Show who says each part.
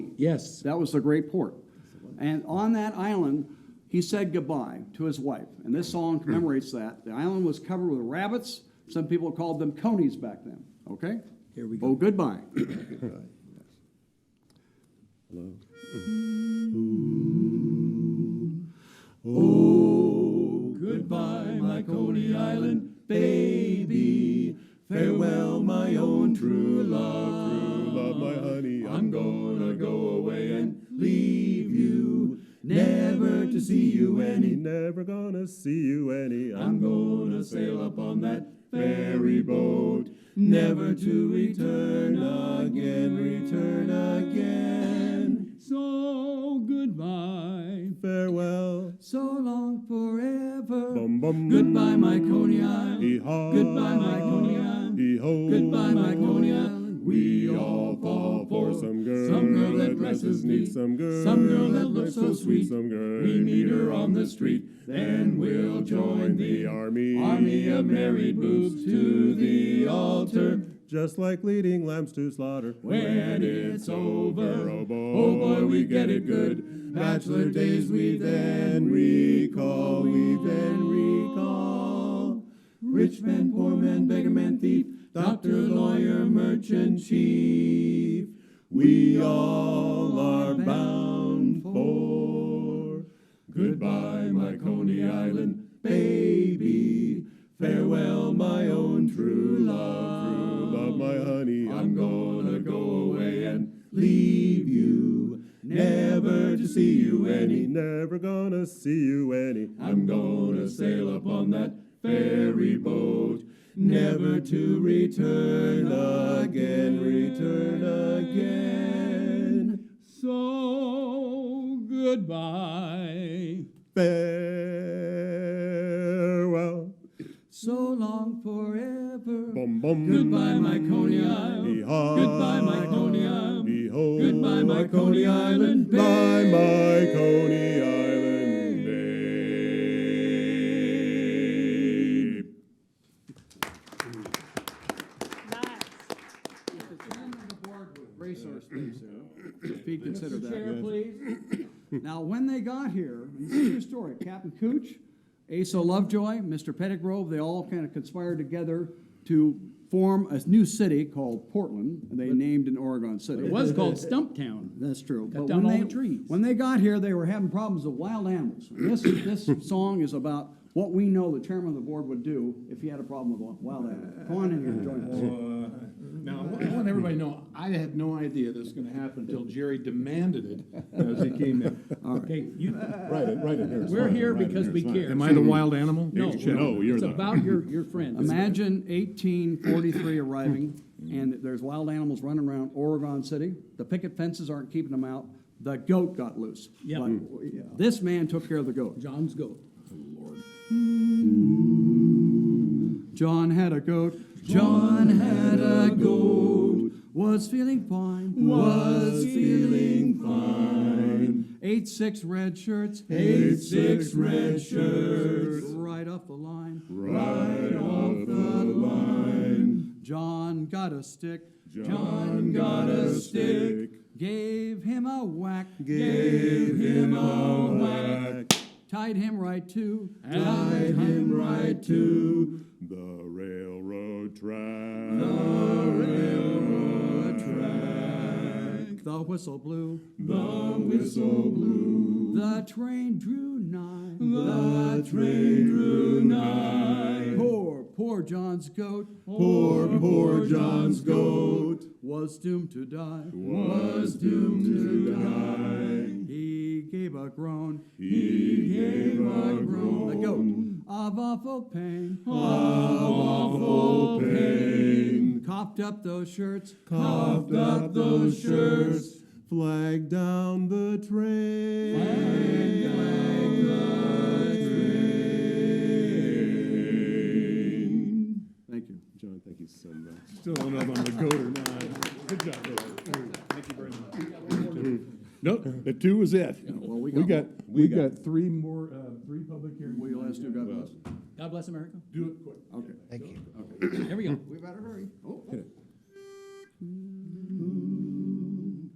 Speaker 1: Yes.
Speaker 2: That was the great port. And on that island, he said goodbye to his wife. And this song commemorates that. The island was covered with rabbits. Some people called them conies back then. Okay?
Speaker 1: Here we go.
Speaker 2: Oh, goodbye.
Speaker 1: Hello.
Speaker 3: Oh, goodbye, my Coney Island baby. Farewell, my own true love.
Speaker 4: love, my honey,
Speaker 3: I'm gonna go away and leave you, never to see you any.
Speaker 4: never gonna see you any.
Speaker 3: I'm gonna sail up on that ferry boat, never to return again, return again. So goodbye,
Speaker 4: farewell.
Speaker 3: so long forever.
Speaker 4: Bum bum.
Speaker 3: Goodbye, my Coney
Speaker 4: Hee
Speaker 3: Island.
Speaker 4: haw.
Speaker 3: Goodbye, my Coney Island.
Speaker 4: Hee ho.
Speaker 3: Goodbye, my Coney Island.
Speaker 4: We all fall for some girl.
Speaker 3: Some girl that dresses neat.
Speaker 4: Some girl.
Speaker 3: Some girl that looks so sweet.
Speaker 4: Some girl.
Speaker 3: We meet her on the street. Then we'll join the army.
Speaker 4: army.
Speaker 3: Army of married boobs to the altar.
Speaker 4: Just like leading lambs to slaughter.
Speaker 3: When it's over,
Speaker 4: Oh,
Speaker 3: oh
Speaker 4: boy.
Speaker 3: boy, we get it good. Bachelor days we then recall, we then recall. Rich man, poor man, beggar man, thief, doctor, lawyer, merchant, chief. We all are bound for. Goodbye, my Coney Island baby. Farewell, my own true love.
Speaker 4: True love, my honey.
Speaker 3: I'm gonna go away and leave you, never to see you any.
Speaker 4: Never gonna see you any.
Speaker 3: I'm gonna sail up on that ferry boat, never to return again, return again. So goodbye.
Speaker 4: Farewell.
Speaker 3: So long forever.
Speaker 4: Bum bum.
Speaker 3: Goodbye, my Coney Island.
Speaker 4: Hee-haw.
Speaker 3: Goodbye, my Coney Island.
Speaker 4: Hee-ho.
Speaker 3: Goodbye, my Coney Island.
Speaker 4: Bye, my Coney Island babe.
Speaker 2: Race our space there, if he considered that.
Speaker 5: Chair, please.
Speaker 2: Now, when they got here, and this is a true story, Captain Cooch, Asa Lovejoy, Mr. Pettigrove, they all kind of conspired together to form a new city called Portland, and they named an Oregon City.
Speaker 5: It was called Stumptown.
Speaker 2: That's true.
Speaker 5: Cut
Speaker 2: But
Speaker 5: down
Speaker 2: when
Speaker 5: all
Speaker 2: they-
Speaker 5: the trees.
Speaker 2: When they got here, they were having problems with wild animals. And This, this song is about what we know the chairman of the board would do if he had a problem with wild animals. Come on in here and join us.
Speaker 6: Now, I want everybody to know, I had no idea this was gonna happen until Jerry demanded it as he came in.
Speaker 5: Okay, you,
Speaker 4: Right, it, right in here.
Speaker 5: we're here because we care.
Speaker 6: Am I the wild animal?
Speaker 5: No,
Speaker 4: No, you're
Speaker 5: it's
Speaker 4: not.
Speaker 5: about your, your friend.
Speaker 2: Imagine eighteen forty-three arriving, and there's wild animals running around Oregon City. The picket fences aren't keeping them out. The goat got loose.
Speaker 5: Yeah.
Speaker 2: But
Speaker 5: Mm.
Speaker 2: This man took care of the goat.
Speaker 5: John's goat.
Speaker 2: John had a goat. John had a goat. Was feeling fine. Was feeling fine. Eight six red shirts. Eight six red shirts. Right off the line. Right off the line. John got a stick. John got a stick. Gave him a whack. Gave him a whack. Tied him right to. Tied him right to.
Speaker 4: The railroad track.
Speaker 2: The whistle blew.
Speaker 4: The whistle blew.
Speaker 2: The train drew nigh. The train drew nigh. Poor, poor John's goat. Poor, poor John's goat. Was doomed to die.
Speaker 4: Was doomed to die.
Speaker 2: He gave a groan.
Speaker 4: He gave a groan.
Speaker 2: The goat of awful pain.
Speaker 4: Awful pain.
Speaker 2: Coughed up those shirts.
Speaker 4: Coughed up those shirts. Flag down the train.
Speaker 2: Thank you.
Speaker 4: John, thank you so much.
Speaker 6: Still don't know if I'm a goat or not. Good job, Thank you very much.
Speaker 4: Nope, the two was it.
Speaker 2: Well, we
Speaker 3: We
Speaker 2: got.
Speaker 4: We got
Speaker 3: three more, uh, three public hearings.
Speaker 2: We last do got those.
Speaker 5: God bless America.
Speaker 6: Do it quick.
Speaker 2: Okay.
Speaker 5: Here we go.
Speaker 2: We better hurry.